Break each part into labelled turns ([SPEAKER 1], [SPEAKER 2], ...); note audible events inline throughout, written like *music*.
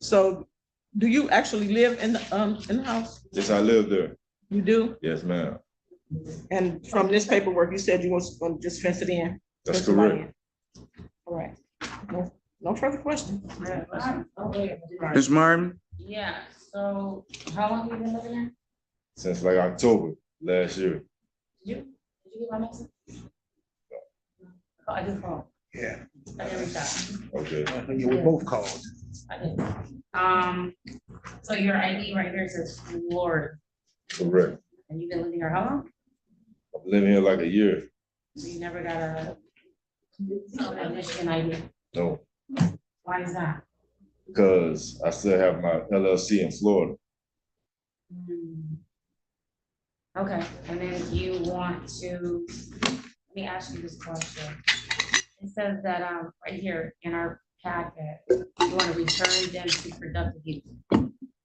[SPEAKER 1] So do you actually live in the, um, in the house?
[SPEAKER 2] Yes, I live there.
[SPEAKER 1] You do?
[SPEAKER 2] Yes, ma'am.
[SPEAKER 1] And from this paperwork, you said you was gonna just fence it in?
[SPEAKER 2] That's
[SPEAKER 1] fence the lot
[SPEAKER 2] correct.
[SPEAKER 1] in. All right. No- No further questions.
[SPEAKER 3] Ms. Martin,
[SPEAKER 4] Yeah, so how long you been living there?
[SPEAKER 2] Since like October last year.
[SPEAKER 4] Did you, did you get my message? Oh, I did call.
[SPEAKER 5] Yeah,
[SPEAKER 4] I didn't reach out.
[SPEAKER 2] Okay.
[SPEAKER 5] you were both called.
[SPEAKER 4] I did. Um, so your ID right here says Florida,
[SPEAKER 2] Correct.
[SPEAKER 4] and you've been living here how long?
[SPEAKER 2] I've been living here like a year.
[SPEAKER 4] You never got a a Michigan ID.
[SPEAKER 2] No,
[SPEAKER 4] Why is that?
[SPEAKER 2] because I still have my LLC in Florida.
[SPEAKER 4] Hmm. Okay, and then you want to, let me ask you this question. It says that, um, right here in our packet, you want to return them to productive use.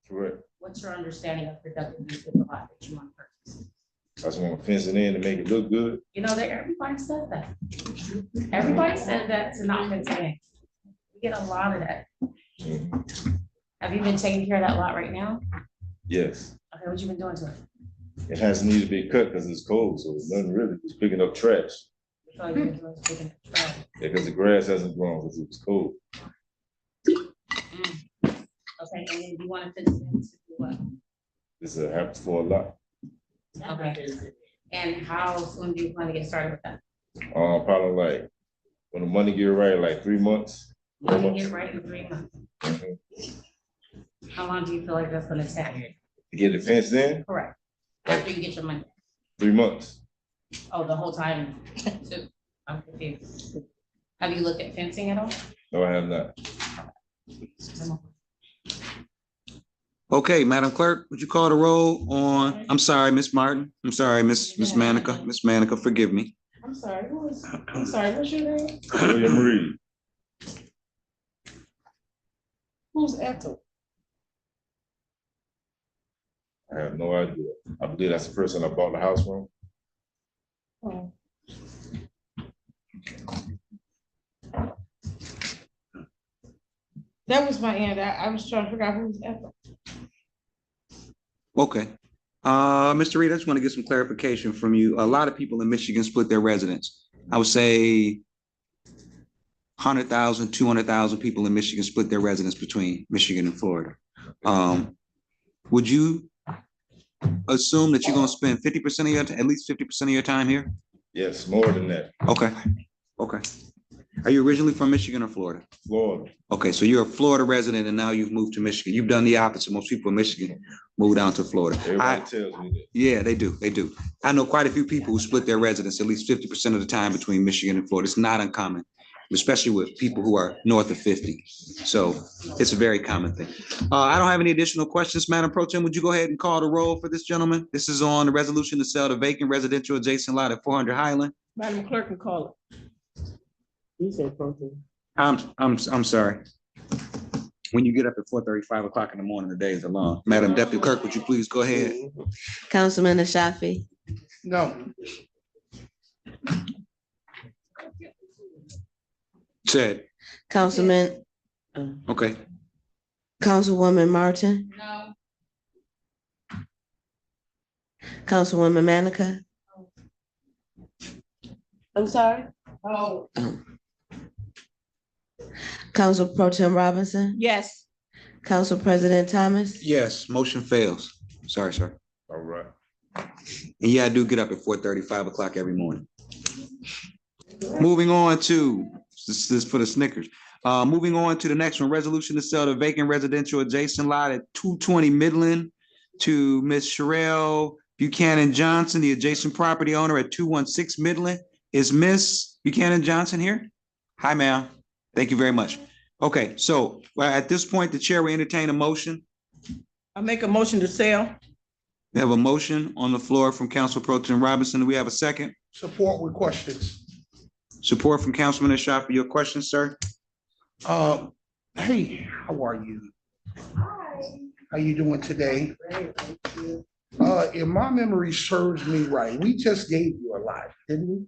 [SPEAKER 2] Correct.
[SPEAKER 4] What's your understanding of productive use of the lot that you want to purchase?
[SPEAKER 2] I just want to fence it in to make it look good.
[SPEAKER 4] You know, that everybody says that. Everybody said that to not contain. We get a lot of that.
[SPEAKER 2] Mhm.
[SPEAKER 4] Have you been taking care of that lot right now?
[SPEAKER 2] Yes.
[SPEAKER 4] Okay, what you been doing to it?
[SPEAKER 2] It has needed to be cut because it's cold, so it's nothing really. It's picking up trash.
[SPEAKER 4] So you've been doing is taking it to trash.
[SPEAKER 2] Because the grass hasn't grown because it was cold.
[SPEAKER 4] Okay, and then you want to fix them to do what?
[SPEAKER 2] This is a happens for a lot.
[SPEAKER 4] Okay. And how soon do you plan to get started with that?
[SPEAKER 2] Uh, probably like when the money get right, like three months.
[SPEAKER 4] You want to get right in three months?
[SPEAKER 2] Mhm.
[SPEAKER 4] How long do you feel like that's gonna take?
[SPEAKER 2] To get it fenced in,
[SPEAKER 4] Correct. After you get your money.
[SPEAKER 2] three months.
[SPEAKER 4] Oh, the whole time,
[SPEAKER 1] *laughs*
[SPEAKER 4] too. I'm confused. Have you looked at fencing at all?
[SPEAKER 2] No, I have not.
[SPEAKER 3] okay, Madam Clerk, would you call the roll on, I'm sorry, Ms. Martin, I'm sorry, Ms. Ms. Manica, Ms. Manica, forgive me.
[SPEAKER 1] I'm sorry, who was, I'm sorry, what's your name?
[SPEAKER 2] William Reed,
[SPEAKER 1] Who's Ethel?
[SPEAKER 2] I have no idea. I believe that's the person I bought the house from.
[SPEAKER 1] Oh. That was my end. I, I was trying to figure out who's Ethel.
[SPEAKER 3] Okay. Uh, Mr. Reed, I just want to get some clarification from you. A lot of people in Michigan split their residence. I would say 100,000, 200,000 people in Michigan split their residence between Michigan and Florida. Um, would you assume that you're going to spend 50% of your, at least 50% of your time here?
[SPEAKER 2] Yes, more than that.
[SPEAKER 3] Okay, okay. Are you originally from Michigan or Florida?
[SPEAKER 2] Florida.
[SPEAKER 3] Okay, so you're a Florida resident and now you've moved to Michigan. You've done the opposite. Most people in Michigan move down to Florida. I-
[SPEAKER 2] Everybody tells me that.
[SPEAKER 3] yeah, they do. They do. I know quite a few people who split their residence at least fifty percent of the time between Michigan and Florida. It's not uncommon, especially with people who are north of fifty. So it's a very common thing. Uh, I don't have any additional questions, Madam Pro Tem. Would you go ahead and call the roll for this gentleman? This is on the resolution to sell the vacant residential adjacent lot at four hundred Highland.
[SPEAKER 1] Madam Clerk can call it.
[SPEAKER 6] You said protein.
[SPEAKER 3] I'm, I'm, I'm sorry. When you get up at four thirty, five o'clock in the morning, the day is long. Madam Deputy Clerk, would you please go ahead?
[SPEAKER 6] Councilman Ashafi,
[SPEAKER 5] No,
[SPEAKER 3] Said,
[SPEAKER 6] Councilman,
[SPEAKER 3] okay.
[SPEAKER 6] Councilwoman Martin,
[SPEAKER 4] No.
[SPEAKER 6] Councilwoman Manica,
[SPEAKER 1] I'm sorry? Oh.
[SPEAKER 6] Council Pro Tem Robinson,
[SPEAKER 1] Yes.
[SPEAKER 6] Council President Thomas,
[SPEAKER 3] Yes, motion fails. Sorry, sir.
[SPEAKER 2] All right.
[SPEAKER 3] And yeah, I do get up at four thirty, five o'clock every morning. Moving on to, this this is for the Snickers. Uh, moving on to the next one, resolution to sell the vacant residential adjacent lot at two twenty Midland to Ms. Sherelle Buchanan Johnson, the adjacent property owner at two one six Midland. Is Ms. Buchanan Johnson here? Hi, ma'am. Thank you very much. Okay, so well, at this point, the chair will entertain a motion.
[SPEAKER 1] I make a motion to sell.
[SPEAKER 3] We have a motion on the floor from Council Pro Tim Robinson. Do we have a second?
[SPEAKER 5] support with questions.
[SPEAKER 3] Support from Councilman Ashafi. Your question, sir?
[SPEAKER 5] Um, hey, how are you? How you doing today? Uh, if my memory serves me right, we just gave you a lot, didn't we?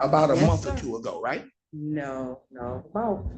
[SPEAKER 5] About a
[SPEAKER 6] Yes,
[SPEAKER 5] month or
[SPEAKER 6] sir.
[SPEAKER 5] two ago, right?
[SPEAKER 6] No, no, well,